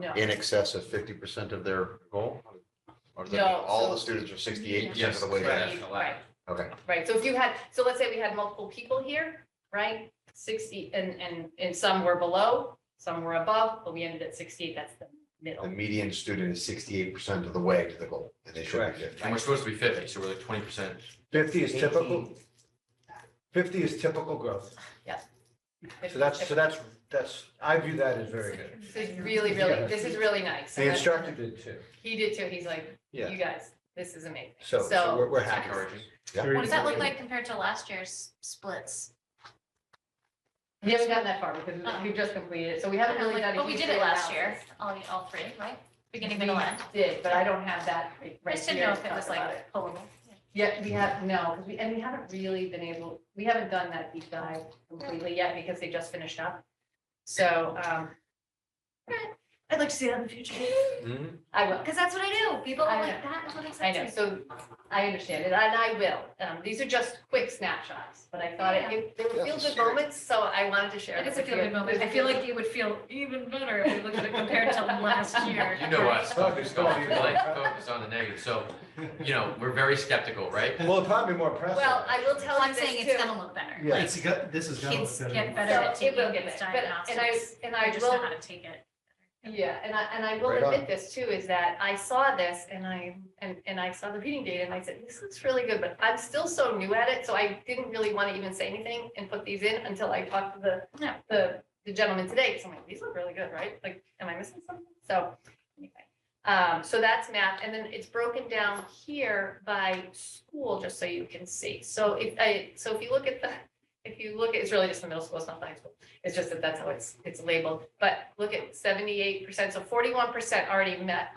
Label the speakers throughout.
Speaker 1: No.
Speaker 2: in excess of fifty percent of their goal? Or is that
Speaker 1: No,
Speaker 2: all
Speaker 1: so-
Speaker 2: the students are sixty-eight percent of
Speaker 3: Yes,
Speaker 2: the way
Speaker 3: correct.
Speaker 2: there?
Speaker 3: National
Speaker 1: Right,
Speaker 3: average.
Speaker 2: Okay,
Speaker 1: right. So if you had, so let's say we had multiple people here, right? Sixty, and, and, and some were below, some were above, but we ended at sixty-eight, that's the
Speaker 2: the
Speaker 1: middle.
Speaker 2: median student is sixty-eight percent of the way to the goal, and they should
Speaker 3: Correct.
Speaker 2: be fifty.
Speaker 3: And we're supposed to be fifty, so we're like twenty percent.
Speaker 4: Fifty is typical. Fifty is typical growth. So that's, so that's, that's, I view that as very good.
Speaker 1: This is really, really, this is really nice.
Speaker 4: The instructor did too.
Speaker 1: He did too. He's like,
Speaker 4: Yeah.
Speaker 1: you guys, this is amazing.
Speaker 4: So, so we're, we're happy.
Speaker 3: Encouraging.
Speaker 5: There
Speaker 6: What does
Speaker 5: is-
Speaker 6: that look like compared to last year's splits?
Speaker 1: We haven't gotten that far because we've just completed it, so Uh-uh. we haven't really done. a
Speaker 6: But we
Speaker 1: huge
Speaker 6: did it last year,
Speaker 1: analysis.
Speaker 6: all, all three, right? Beginning, middle,
Speaker 1: We
Speaker 6: end.
Speaker 1: Did, but I don't have that
Speaker 6: I
Speaker 1: right
Speaker 6: just didn't know
Speaker 1: here
Speaker 6: if
Speaker 1: to
Speaker 6: it
Speaker 1: talk
Speaker 6: was
Speaker 1: about it.
Speaker 6: like pullable.
Speaker 1: Yeah, we have, no, 'cause we, and we haven't really been able, we haven't done that deep dive completely yet because they just finished up. So, um,
Speaker 6: I'd like to see that in the future.
Speaker 2: Mm-hmm.
Speaker 4: Mhm.
Speaker 1: I will,
Speaker 6: Because that's what I do. People are
Speaker 1: I
Speaker 6: like, that is what
Speaker 1: I
Speaker 6: excites me.
Speaker 1: know, so I understand it, and I will. Um, these are just quick snapshots, but I thought it- it, they were feel good moments, so I wanted to share.
Speaker 6: It is a
Speaker 1: them with
Speaker 6: feel-good
Speaker 1: you.
Speaker 6: moment. I feel like it would feel even better if we looked at it compared to last year.
Speaker 3: You know us, focus,
Speaker 4: Focus,
Speaker 3: focus,
Speaker 4: focus.
Speaker 3: like, focus on the negative, so, you know, we're very skeptical, right?
Speaker 4: Well, it'd probably be more impressive.
Speaker 1: Well, I will tell
Speaker 6: Well,
Speaker 1: you
Speaker 6: I'm
Speaker 1: this too.
Speaker 6: saying it's gonna look better.
Speaker 4: Yeah.
Speaker 6: Like,
Speaker 5: It's got, this is gonna
Speaker 6: kids
Speaker 5: look
Speaker 6: get
Speaker 5: better.
Speaker 6: better at
Speaker 1: So it
Speaker 6: taking
Speaker 1: will get
Speaker 6: these
Speaker 1: better, but- And I,
Speaker 6: diagnostics.
Speaker 1: and
Speaker 6: I
Speaker 1: I
Speaker 6: just know
Speaker 1: will
Speaker 6: how to take it.
Speaker 1: Yeah, and I, and I will
Speaker 4: Right on.
Speaker 1: admit this too, is that I saw this and I, and, and I saw the reading data and I said, this looks really good, but I'm still so new at it, so I didn't really want to even say anything and put these in until I talked to the,
Speaker 6: Yeah.
Speaker 1: the, the gentleman today, because I'm like, these look really good, right? Like, am I missing something? So, anyway. Um, so that's math, and then it's broken down here by school, just so you can see. So if I, so if you look at the, if you look, at it's really just the middle school, it's not the high school. It's just that that's how it's, it's labeled, but look at seventy-eight percent, so forty-one percent already met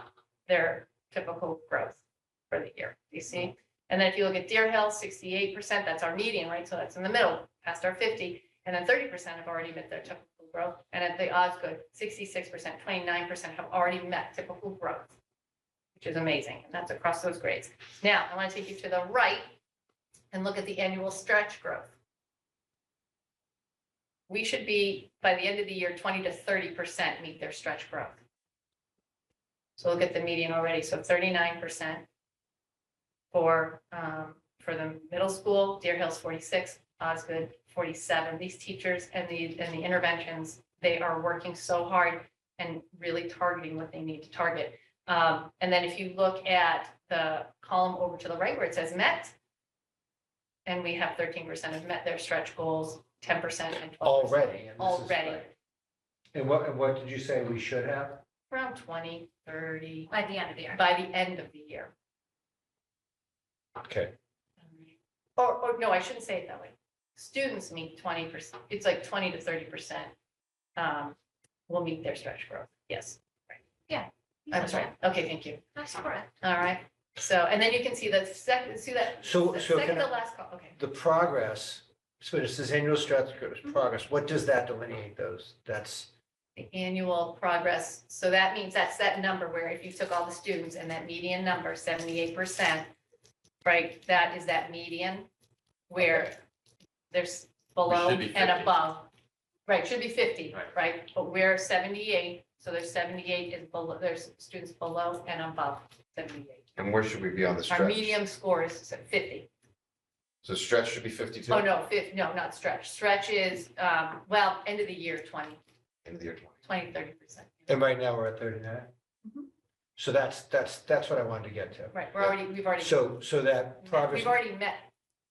Speaker 1: their typical growth for the year, you see? And then if you look at Deer Hill, sixty-eight percent, that's our median, right? So that's in the middle, past our fifty. And then thirty percent have already met their typical growth, and at the Osgood, sixty-six percent, twenty-nine percent have already met typical growth, which is amazing, and that's across those grades. Now, I want to take you to the right and look at the annual stretch growth we should be, by the end of the year, twenty to thirty percent meet their stretch growth. So look at the median already, so thirty-nine percent for, um, for the middle school, Deer Hill's forty-six, Osgood forty-seven. These teachers and the, and the interventions, they are working so hard and really targeting what they need to target. Um, and then if you look at the column over to the right where it says met, and we have thirteen percent have met their stretch goals, ten percent and twelve percent
Speaker 4: Already. and this is
Speaker 1: Already.
Speaker 4: like- And what, and what did you say we should have?
Speaker 1: around 20, 30
Speaker 6: By the end of the year.
Speaker 1: by the end of the year.
Speaker 4: Okay.
Speaker 1: Or, or no, I shouldn't say it that way. Students meet twenty percent, it's like twenty to thirty percent um, will meet their stretch growth. Yes, I'm sorry. Okay, thank you.
Speaker 6: I support it.
Speaker 1: All right. So, and then you can see the second, see that,
Speaker 4: So,
Speaker 1: the
Speaker 4: so
Speaker 1: second
Speaker 4: can
Speaker 1: to
Speaker 4: I,
Speaker 1: last, col- okay.
Speaker 4: the progress, so it says annual strat,
Speaker 1: Mm-hmm.
Speaker 4: progress, what does that delineate those? That's,
Speaker 1: The annual progress, so that means that's that number where if you took all the students and that median number, seventy-eight percent, right, that is that median where there's below
Speaker 3: should be
Speaker 1: and
Speaker 3: 50.
Speaker 1: above. Right, should be fifty,
Speaker 3: Right.
Speaker 1: right, but we're seventy-eight, so there's seventy-eight is below, there's students below and above seventy-eight.
Speaker 2: And where should we be on the
Speaker 1: Our
Speaker 2: stretch?
Speaker 1: medium score is fifty.
Speaker 2: So stretch should be fifty-two,
Speaker 1: Oh,
Speaker 2: end
Speaker 1: no, fif, no, not stretch. Stretch is, um, well, end of the year, 20,
Speaker 2: of the year twenty.
Speaker 1: 20, 30 percent.
Speaker 4: and right now we're at thirty-nine?
Speaker 1: Mhm.
Speaker 4: So that's, that's, that's what I wanted to get to.
Speaker 1: Right, we're already, we've already.
Speaker 4: So, so that progress,
Speaker 1: We've already met,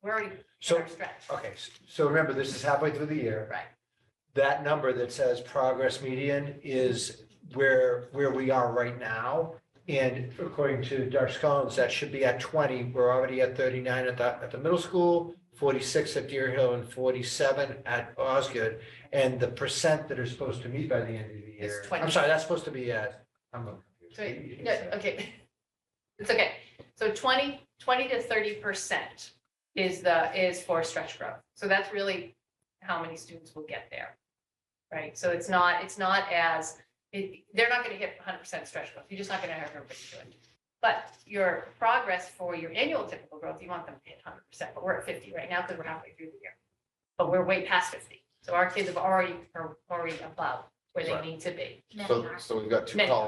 Speaker 1: we're already in
Speaker 4: so,
Speaker 1: our stretch.
Speaker 4: okay, s- so remember, this is halfway through the year.
Speaker 1: Right.
Speaker 4: That number that says progress median is where, where we are right now. And according to Darcy Collins, that should be at twenty. We're already at thirty-nine at the, at the middle school, forty-six at Deer Hill and forty-seven at Osgood. And the percent that are supposed to meet by the end of the
Speaker 1: Is
Speaker 4: year.
Speaker 1: 20.
Speaker 4: I'm sorry, that's supposed to be at, I'm.
Speaker 1: So, no, okay. It's okay. So 20, 20 to 30 percent is the, is for stretch growth. So that's really how many students will get there. Right? So it's not, it's not as, it- they're not going to hit 100 percent stretch growth. You're just not going to have everybody do it. But your progress for your annual typical growth, you want them to hit 100 percent, but we're at 50 right now because we're halfway through the year. But we're way past 50. So our kids have already, are already above. Where
Speaker 6: where they
Speaker 4: Right.
Speaker 6: need to be.
Speaker 4: So, so we've got two
Speaker 6: Many.
Speaker 4: columns